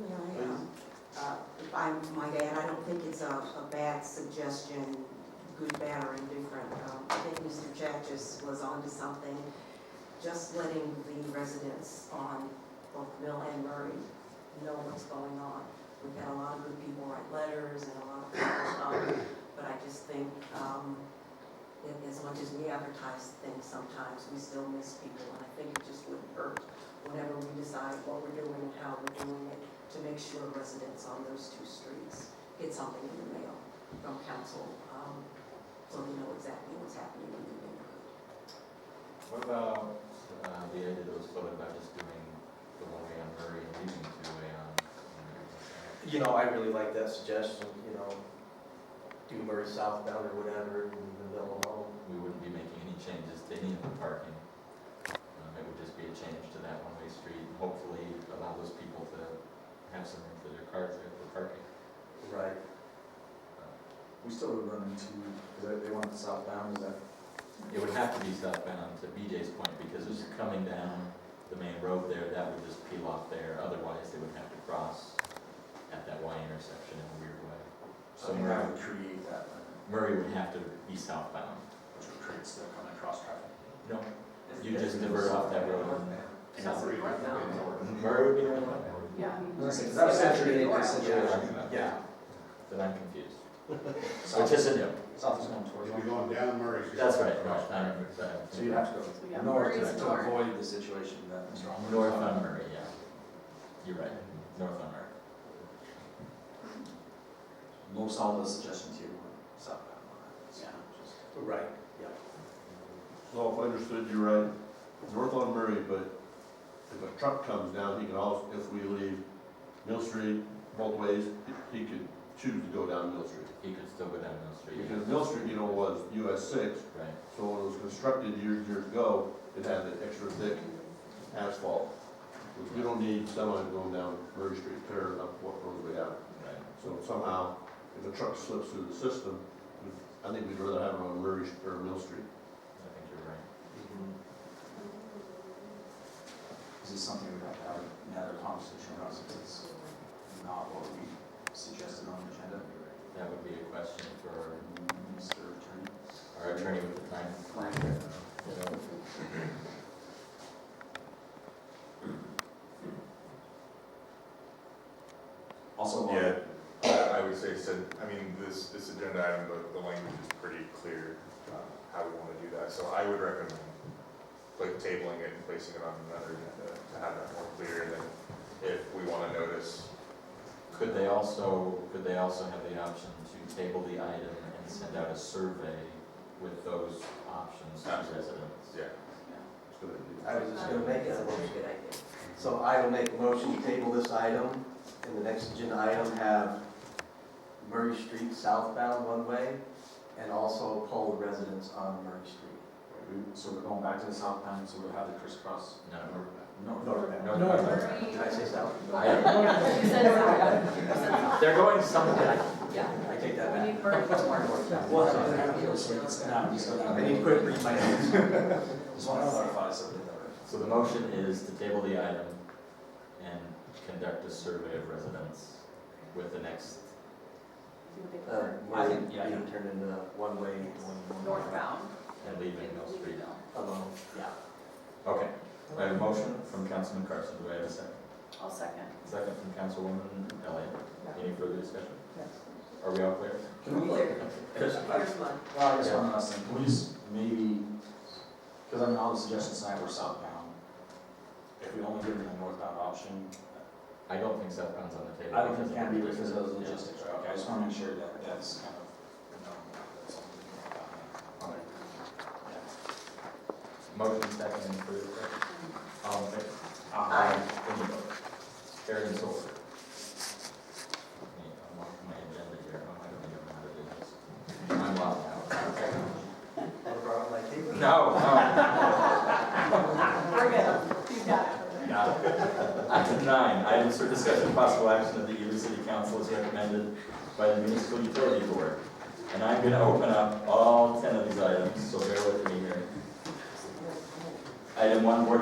May I, um, uh, if I might add, I don't think it's a, a bad suggestion, good, bad, or indifferent. Um, I think Mr. Chachis was onto something, just letting the residents on both Mill and Murray know what's going on. We've had a lot of good people write letters and a lot of people, um, but I just think, um, that as much as we advertise things sometimes, we still miss people, and I think it just wouldn't hurt whenever we decide what we're doing and how we're doing it, to make sure residents on those two streets get something in the mail from council, um, so they know exactly what's happening in the neighborhood. What about uh, the idea that was floated about just doing the one way on Murray and leaving the two way on? on You know, I really like that suggestion, you know, do Murray southbound or whatever, and leave them alone. Murray? We wouldn't be making any changes to any of the parking. Um, It would just be a change to that one-way street and hopefully allow those people to have some room for their cars there for parking. Right. We still would run into, because they want the southbound, is that? It would have to be southbound to BJ's point because it's coming down the main road there, that would just peel off there. Otherwise, they would have to cross at that Y intersection in a weird way. So I mean, Murray- that would create that, uh, Murray would have to be southbound. which would create still kind of cross traffic. No, you just divert off that road. And that's what we want now. Murray would be the one. Yeah. Because that was actually the Yeah. situation. Yeah. Then I'm confused. Which South is is a no. south is going towards. You'll be going down Murray. That's right, no, I'm, So you'd have to So, go yeah, north Murray's to- to north. avoid the situation that Mr. Almond. north on Murray, yeah. You're right, north on Murray. Most all those suggestions here were southbound. Yeah. Right, So if I understood you right, north on Murray, but if a truck comes down, he can also, if we leave Mill Street both ways, he could choose to go down Mill Street. He could still go down Mill Street. Because Mill Street, you know, was US six, Right, so when it was constructed years, years ago, it had that extra thick asphalt. Which we don't need someone going down Murray Street, tearing up what road we have. right. So somehow, if a truck slips through the system, I think we'd rather have it on Murray, or Mill Street. I think you're right. Mm-hmm. This is something we have to have another conversation around, because it's not what we suggested on the agenda. That would be a question for Mr. Attorney? our attorney with the time. Also, while- Yeah, I I would say, said, I mean, this, this agenda item, but the language is pretty clear, um, how we want to do that, so I would recommend, like, tabling it and placing it on another agenda to have that more clear, and then if we want to notice, Could they also, could they also have the option to table the item and send out a survey with those options to Absolutely. residents? yeah. It's gonna be- I was just gonna make That's a that very motion. good idea. So I will make a motion to table this item, and the next agenda item have Murray Street southbound one way, and also poll the residents on Murray Street. we- um, so we're going back to the southbound, so we'll have the crisscross. No, No, Northbound. no, no, no. Murray- Did I say south? I- You said south. You said south. They're going someday. Yeah. I take that back. We need Murray to work. Well, so it's now, just go down. I need to quit reading my notes. Just want to clarify something that So the motion is to table the item and conduct a survey of residents with the next, I Uh, Murray think, yeah, being yeah. turned into one way, one. Northbound. and leaving Mill Street. Alone, yeah. Okay, I have a motion from Councilman Carson, do I have a second? I'll second. Second from Councilwoman Elliott, any further discussion? Are we all clear? Can we, like, Here's Yes. mine. well, I just one last thing, can we just maybe, because I mean, all the suggestions tonight were southbound. If we only give them the northbound option, I don't think southbound's on the table. I don't think it because of can be the because of those distance. logistics, right? Okay, I just want to make sure that that's kind of, known that's something we can work on. Yeah. Motion second and further discussion? All in favor? Aye. Any opposed? Carried and so ordered. Hey, I'm off my agenda here, I don't even know how to do this. I'm locked out. I brought my paper. No, no. We're good. You got it. Got it. Item nine, items for discussion, possible action of the Ely City Council as recommended by the Municipal Utility Board. And I'm gonna open up all ten of these items, so bear with me here. Item one, board